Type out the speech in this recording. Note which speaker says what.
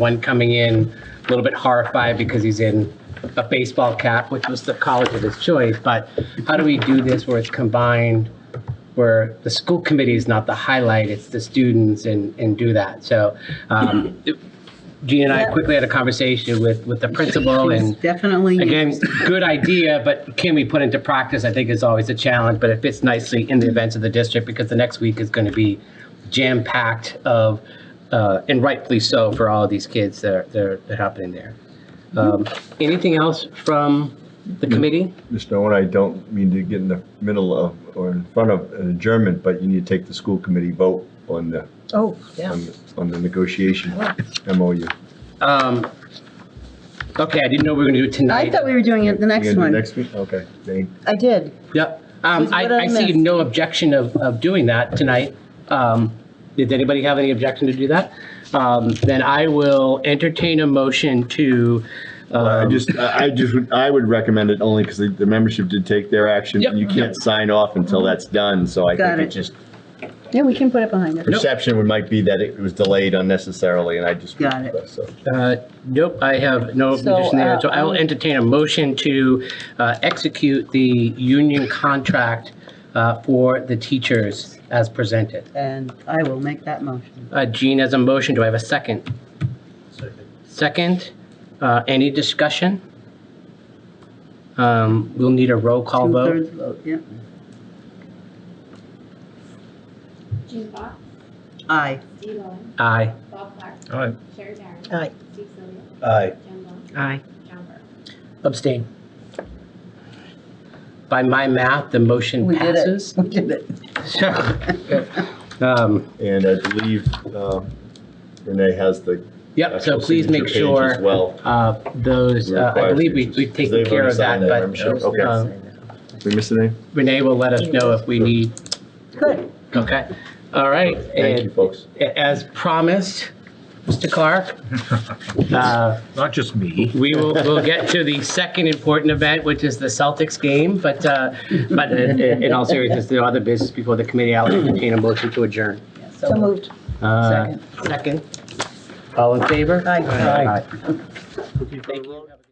Speaker 1: One coming in a little bit horrified because he's in a baseball cap, which was the college of his choice. But how do we do this where it's combined, where the school committee is not the highlight, it's the students and, and do that? So um, Gina and I
Speaker 2: Yeah.
Speaker 1: quickly had a conversation with, with the principal and
Speaker 2: Definitely.
Speaker 1: again, good idea, but can we put into practice, I think is always a challenge, but it fits nicely in the events of the district because the next week is going to be jam-packed of, uh, and rightfully so for all of these kids that are, that are that are happening there. Um, Anything else from the committee?
Speaker 3: Mr. Owen, I don't mean to get in the middle of or in front of an adjournment, but you need to take the school committee vote on the,
Speaker 1: Oh, yeah.
Speaker 3: on the- on the negotiation MOU.
Speaker 1: Um, okay, I didn't know we were going to do it tonight.
Speaker 2: I thought we were doing it the
Speaker 3: We're
Speaker 2: next
Speaker 3: gonna do
Speaker 2: one.
Speaker 3: Next week, okay. Thank-
Speaker 2: I did.
Speaker 1: Yep. Um,
Speaker 2: Susan,
Speaker 1: I,
Speaker 2: what did I
Speaker 1: I see
Speaker 2: miss?
Speaker 1: no objection of, of doing that tonight. Um, did anybody have any objection to do that? Um, then I will entertain a motion to,
Speaker 4: I
Speaker 1: uh,
Speaker 4: just, I I just, would- I would recommend it only because the, the membership did take their action.
Speaker 1: Yep.
Speaker 4: You can't sign off until that's done, so I
Speaker 2: Got
Speaker 4: think it
Speaker 2: it.
Speaker 4: just,
Speaker 2: Yeah, we can put it behind us.
Speaker 4: perception would might be that it was delayed unnecessarily, and I just.
Speaker 2: Got it.
Speaker 4: so.
Speaker 1: uh, nope, I have no
Speaker 2: So,
Speaker 1: objection there. So
Speaker 2: uh,
Speaker 1: I will
Speaker 2: um,
Speaker 1: entertain a motion to, uh, execute the union contract, uh, for the teachers as presented.
Speaker 2: And I will make that motion.
Speaker 1: Uh, Jean has a motion. Do I have a second? Second, uh, any discussion? Um, we'll need a roll call vote.
Speaker 2: Two-thirds vote, yeah.
Speaker 5: Gene Fox,
Speaker 2: Aye.
Speaker 5: Steve Owen,
Speaker 1: Aye.
Speaker 5: Bob Clark,
Speaker 3: Aye.
Speaker 5: Sherry Darren.
Speaker 2: Aye.
Speaker 5: Steve Sylvia,
Speaker 3: Aye.
Speaker 5: Jen Bone,
Speaker 2: Aye.
Speaker 5: John Burke.
Speaker 1: Abstain. By my math, the motion
Speaker 2: We did it.
Speaker 1: passes.
Speaker 2: We did it.
Speaker 1: So, um,
Speaker 4: And I believe uh, Renee has the.
Speaker 1: Yep, so
Speaker 4: actual
Speaker 1: please make
Speaker 4: signature page As
Speaker 1: sure
Speaker 4: well.
Speaker 1: uh, those, uh, I
Speaker 4: Required
Speaker 1: believe we-
Speaker 4: signatures,
Speaker 1: we've
Speaker 4: 'cause
Speaker 1: taken
Speaker 4: they've
Speaker 1: care
Speaker 4: already
Speaker 1: of that,
Speaker 4: signed that membership.
Speaker 1: but
Speaker 4: Okay.
Speaker 1: um,
Speaker 4: Did we miss anything?
Speaker 1: Renee will let us know if we need,
Speaker 2: Good.
Speaker 1: okay? All right.
Speaker 4: Thank
Speaker 1: and-
Speaker 4: you, folks.
Speaker 1: As promised, Mr. Clark, uh,
Speaker 6: Not just me.
Speaker 1: we will, we'll get to the second important event, which is the Celtics game, but, uh, but in in all seriousness, there are other business before the committee. I'll entertain a motion to adjourn.
Speaker 2: So moved.
Speaker 1: Uh, Second. All in favor?
Speaker 2: Aye.
Speaker 1: Thank you.